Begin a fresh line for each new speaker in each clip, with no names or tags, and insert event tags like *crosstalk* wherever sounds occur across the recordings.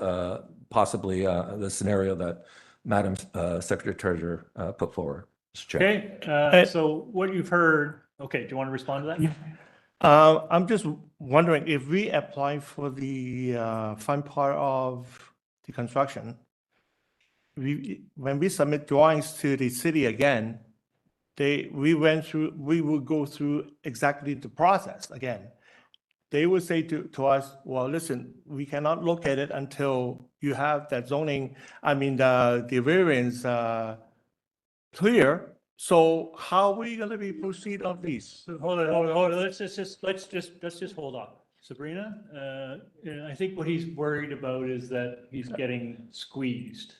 uh, possibly uh, the scenario that Madam uh, Secretary Treasurer uh, put forward, Mr. Chair.
Okay, uh, so what you've heard, okay, do you want to respond to that?
Uh, I'm just wondering if we apply for the uh, front part of the construction, we, when we submit drawings to the city again, they, we went through, we will go through exactly the process again. They would say to, to us, well, listen, we cannot look at it until you have that zoning, I mean, the, the variance uh, clear. So how are we going to be proceed on this?
So hold on, hold on, hold on, let's just- just, let's just, let's just hold on. Sabrina, uh, and I think what he's worried about is that he's getting squeezed,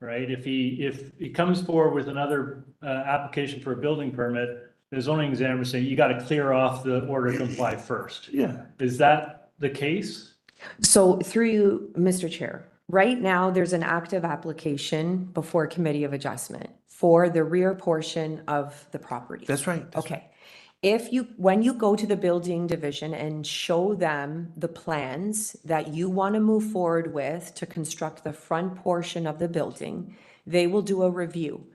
right? If he, if he comes forward with another, uh, application for a building permit, the zoning examiner saying, you got to clear off the order to comply first.
Yeah.
Is that the case?
So through you, Mr. Chair, right now, there's an active application before Committee of Adjustment for the rear portion of the property.
That's right. that's
Okay. If you, when you go to the building division and show them the plans that you want to move forward with to construct the front portion of the building, they will do a review.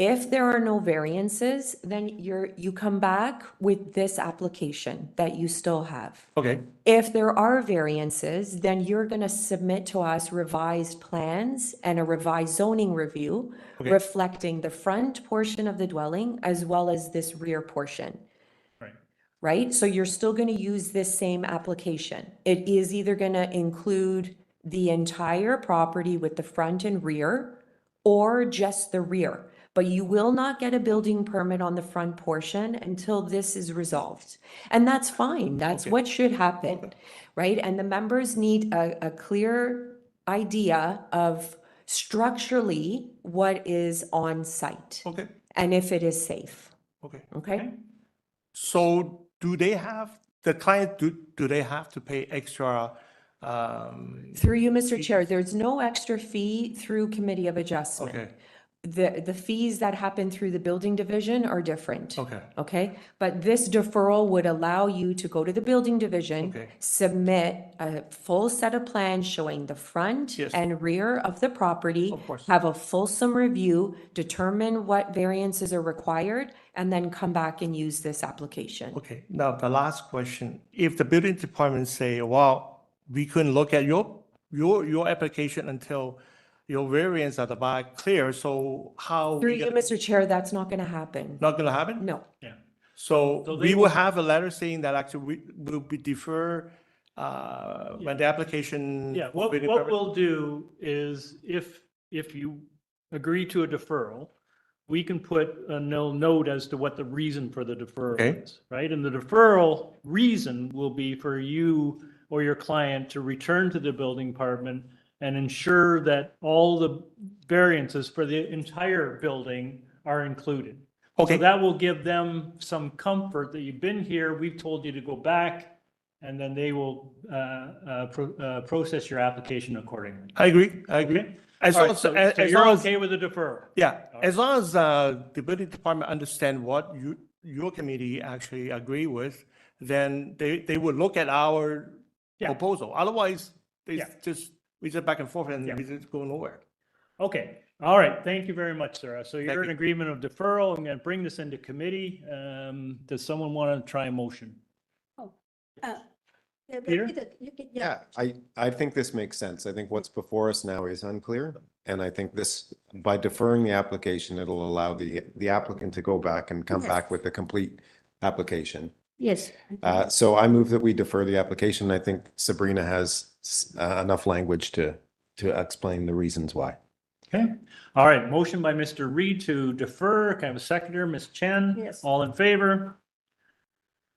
If there are no variances, then you're, you come back with this application that you still have.
Okay,
If there are variances, then you're going to submit to us revised plans and a revised zoning review
Okay.
reflecting the front portion of the dwelling as well as this rear portion,
Right.
right? So you're still going to use this same application. It is either going to include the entire property with the front and rear or just the rear. But you will not get a building permit on the front portion until this is resolved. And that's fine. That's what should happen, right? And the members need a, a clear idea of structurally what is on site
okay,
and if it is safe,
okay.
okay?
So do they have, the client, do, do they have to pay extra? um,
Through you, Mr. Chair, there's no extra fee through Committee of Adjustment.
Okay,
The, the fees that happen through the building division are different.
okay,
Okay, but this deferral would allow you to go to the building division,
Okay.
submit a full set of plans showing the front
Yes.
and rear of the property.
Of course.
Have a fulsome review, determine what variances are required, and then come back and use this application.
okay. Now, the last question, if the building department say, well, we couldn't look at your, your, your application until your variance at the back clear, so how? we
Through you,
gonna-
Mr. Chair, that's not gonna happen.
Not gonna happen?
No,
Yeah. So
So
they
we
will-
will have a letter saying that actually we will be defer, uh, when the application.
Yeah, what,
building
what
permit-
we'll do is if, if you agree to a deferral, we can put a no note as to what the reason for the
Okay.
deferral is, right? And the deferral reason will be for you or your client to return to the building department and ensure that all the variances for the entire building are included. So
Okay,
that will give them some comfort that you've been here, we've told you to go back, and then they will uh, uh, pro- uh, process your application accordingly.
I agree, I agree.
Okay?
As
All
long
right,
as,
so
as
so
as
you're
long as,
okay with the deferral?
yeah, as long as, uh, the building department understand what you, your committee actually agree with, then they, they will look at our
Yeah.
proposal. Otherwise, they
Yeah.
just, we just back and forth and
Yeah.
we just go nowhere.
Okay, all right, thank you very much, Sarah. So
Thank
you're in
you.
agreement of deferral, I'm going to bring this into committee. Um, Does someone want to try a motion?
Uh, yeah, but
Peter?
you did- you did-
Yeah, I, I think this makes sense. I think what's before us now is unclear. And I think this, by deferring the application, it'll allow the, the applicant to go back and come back with a complete application.
Yes.
Uh, so I move that we defer the application. I think Sabrina has s- uh, enough language to, to explain the reasons why.
Okay, all right, motion by Mr. Reed to defer, Can I have a seconder, Ms. Chen?
Yes.
All in favor?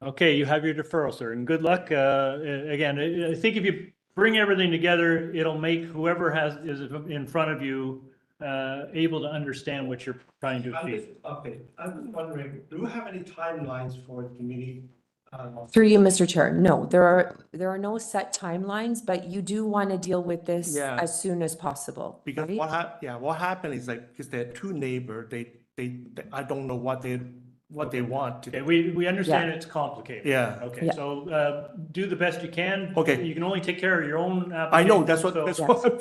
Okay, you have your deferral, sir, and good luck. Uh, Again, I I think if you bring everything together, it'll make whoever has, is in front of you uh, able to understand what you're trying to
I'm
achieve.
just, okay, I'm just wondering, do you have any timelines for the committee? uh,
through you, Mr. Chair, no, there are, there are no set timelines, but you do want to deal with this
Yeah.
as soon as possible.
Because
right?
what hap, yeah, what happened is like, because they're two neighbor, they, they, they- I don't know what they, what they want to
Okay, we, we understand it's complicated.
Yeah.
Okay,
Yeah.
so, uh, do the best you can.
Okay.
You can only take care of your own application.
I know, that's what,
so-
that's what *laughs* I'm